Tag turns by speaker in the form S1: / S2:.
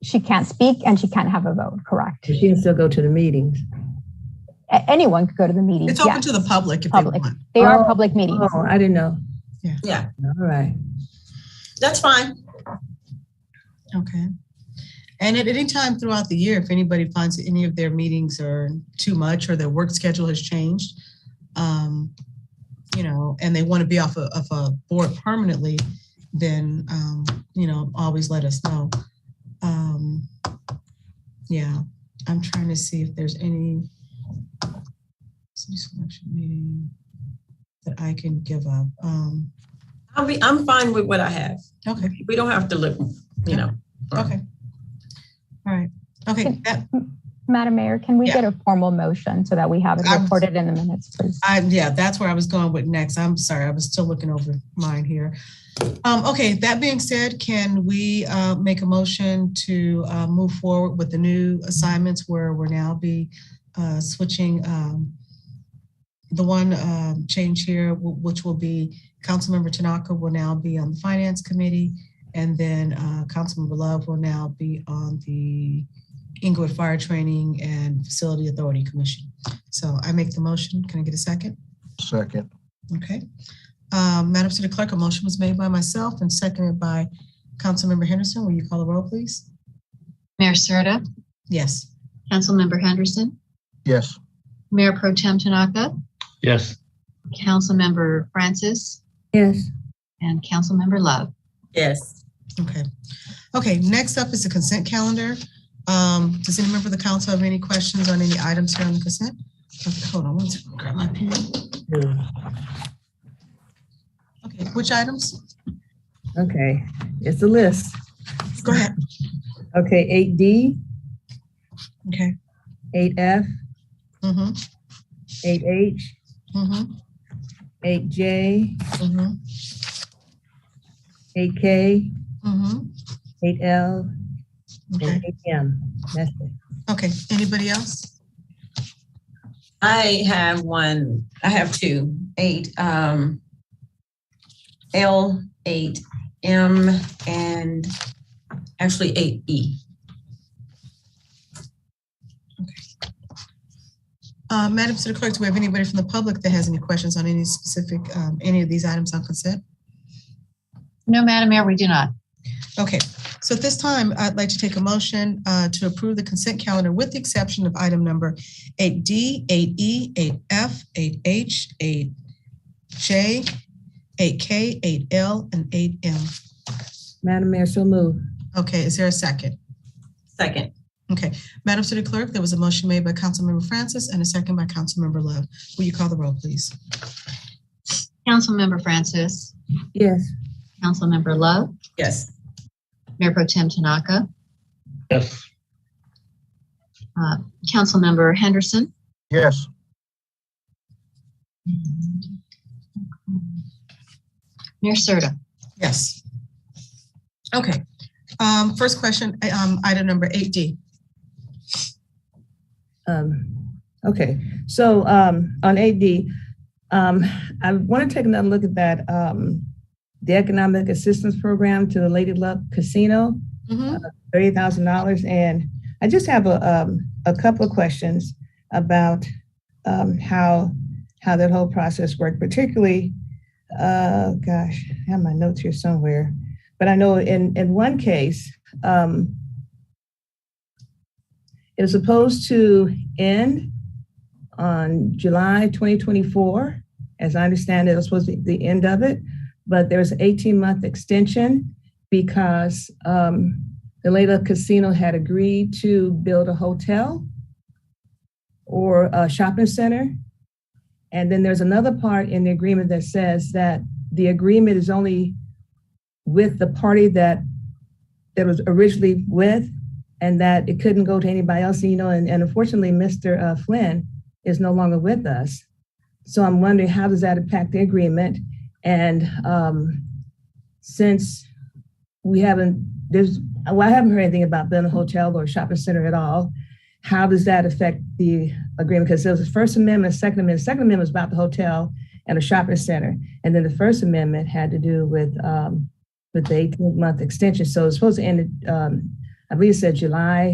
S1: she can't speak and she can't have a vote, correct?
S2: She can still go to the meetings.
S1: A- Anyone could go to the meeting.
S3: It's open
S1: yes.
S3: to the public if they
S1: Public.
S3: want.
S1: They are
S2: Oh,
S1: public meetings.
S2: Oh, I didn't know.
S3: Yeah,
S2: All right.
S3: that's fine. Okay. And at any time throughout the year, if anybody finds that any of their meetings are too much or their work schedule has changed, um, you know, and they want to be off a- of a board permanently, then, um, you know, always let us know. Um, Yeah, I'm trying to see if there's any city selection meeting that I can give up. Um,
S4: I'll be, I'm fine with what I have.
S3: Okay.
S4: We don't have to look, you know.
S3: Okay. All right. Okay, that,
S1: Madam Mayor, can we
S3: Yeah.
S1: get a formal motion so that we have it
S3: I was-
S1: recorded in the minutes, please?
S3: I, yeah, that's where I was going with next. I'm sorry, I was still looking over mine here. Um, okay, that being said, can we, uh, make a motion to, uh, move forward with the new assignments where we're now be, uh, switching, um, the one, um, change here, wh- which will be Councilmember Tanaka will now be on the Finance Committee. And then, uh, Councilmember Love will now be on the Inglewood Fire Training and Facility Authority Commission. So I make the motion. Can I get a second?
S5: Second.
S3: Okay. Um, Madam City Clerk, a motion was made by myself and seconded by Councilmember Henderson. Will you call the roll, please?
S6: Mayor Serta,
S3: Yes.
S6: Councilmember Henderson,
S5: Yes.
S6: Mayor Pro Tem Tanaka,
S7: Yes,
S6: Councilmember Francis,
S2: Yes.
S6: and Councilmember Love.
S4: Yes.
S3: Okay. Okay, next up is the consent calendar. Um, does any member of the council have any questions on any items here on the consent? Okay, Hold on one second, grab my pen. Okay, which items?
S2: Okay, it's a list.
S3: Go ahead.
S2: Okay, eight D,
S3: Okay.
S2: eight F,
S3: Mm-hmm,
S2: eight H,
S3: mm-hmm,
S2: eight J,
S3: mm-hmm,
S2: eight K,
S3: mm-hmm.
S2: eight L,
S3: Okay,
S2: and eight M. That's it.
S3: okay. Anybody else?
S4: I have one, I have two, eight, um, L, eight, M, and actually eight E.
S3: Uh, Madam City Clerk, do we have anybody from the public that has any questions on any specific, um, any of these items on consent?
S6: No, Madam Mayor, we do not.
S3: Okay, so at this time, I'd like to take a motion, uh, to approve the consent calendar with the exception of item number eight D, eight E, eight F, eight H, eight J, eight K, eight L, and eight M.
S2: Madam Mayor, so move.
S3: Okay, is there a second?
S4: Second.
S3: Okay, Madam City Clerk, there was a motion made by Councilmember Francis and a second by Councilmember Love. Will you call the roll, please?
S6: Councilmember Francis,
S2: Yes.
S6: Councilmember Love,
S4: Yes.
S6: Mayor Pro Tem Tanaka,
S7: yes,
S6: uh, Councilmember Henderson,
S5: Yes.
S6: Mayor Serta.
S3: Yes. Okay, um, first question, um, item number eight D.
S2: Um, okay, so, um, on AD, um, I want to take another look at that, um, the Economic Assistance Program to the Lady Luck Casino, thirty thousand dollars, and I just have a, um, a couple of questions about, um, how, how that whole process worked, particularly, uh, gosh, I have my notes here somewhere, but I know in, in one case, um, it was supposed to end on July 2024. As I understand it, it was supposed to be the end of it, but there was an 18 month extension because um, the Layla Casino had agreed to build a hotel or a shopping center. And then there's another part in the agreement that says that the agreement is only with the party that that was originally with and that it couldn't go to anybody else, you know, and, and unfortunately, Mr. uh, Flynn is no longer with us. So I'm wondering how does that impact the agreement? And um, since we haven't, there's, well, I haven't heard anything about building a hotel or shopping center at all. How does that affect the agreement? Because there was the First Amendment, Second Amendment. Second Amendment was about the hotel and a shopping center. And then the First Amendment had to do with, um, with the 18 month extension. So it's supposed to end, um, I believe it said July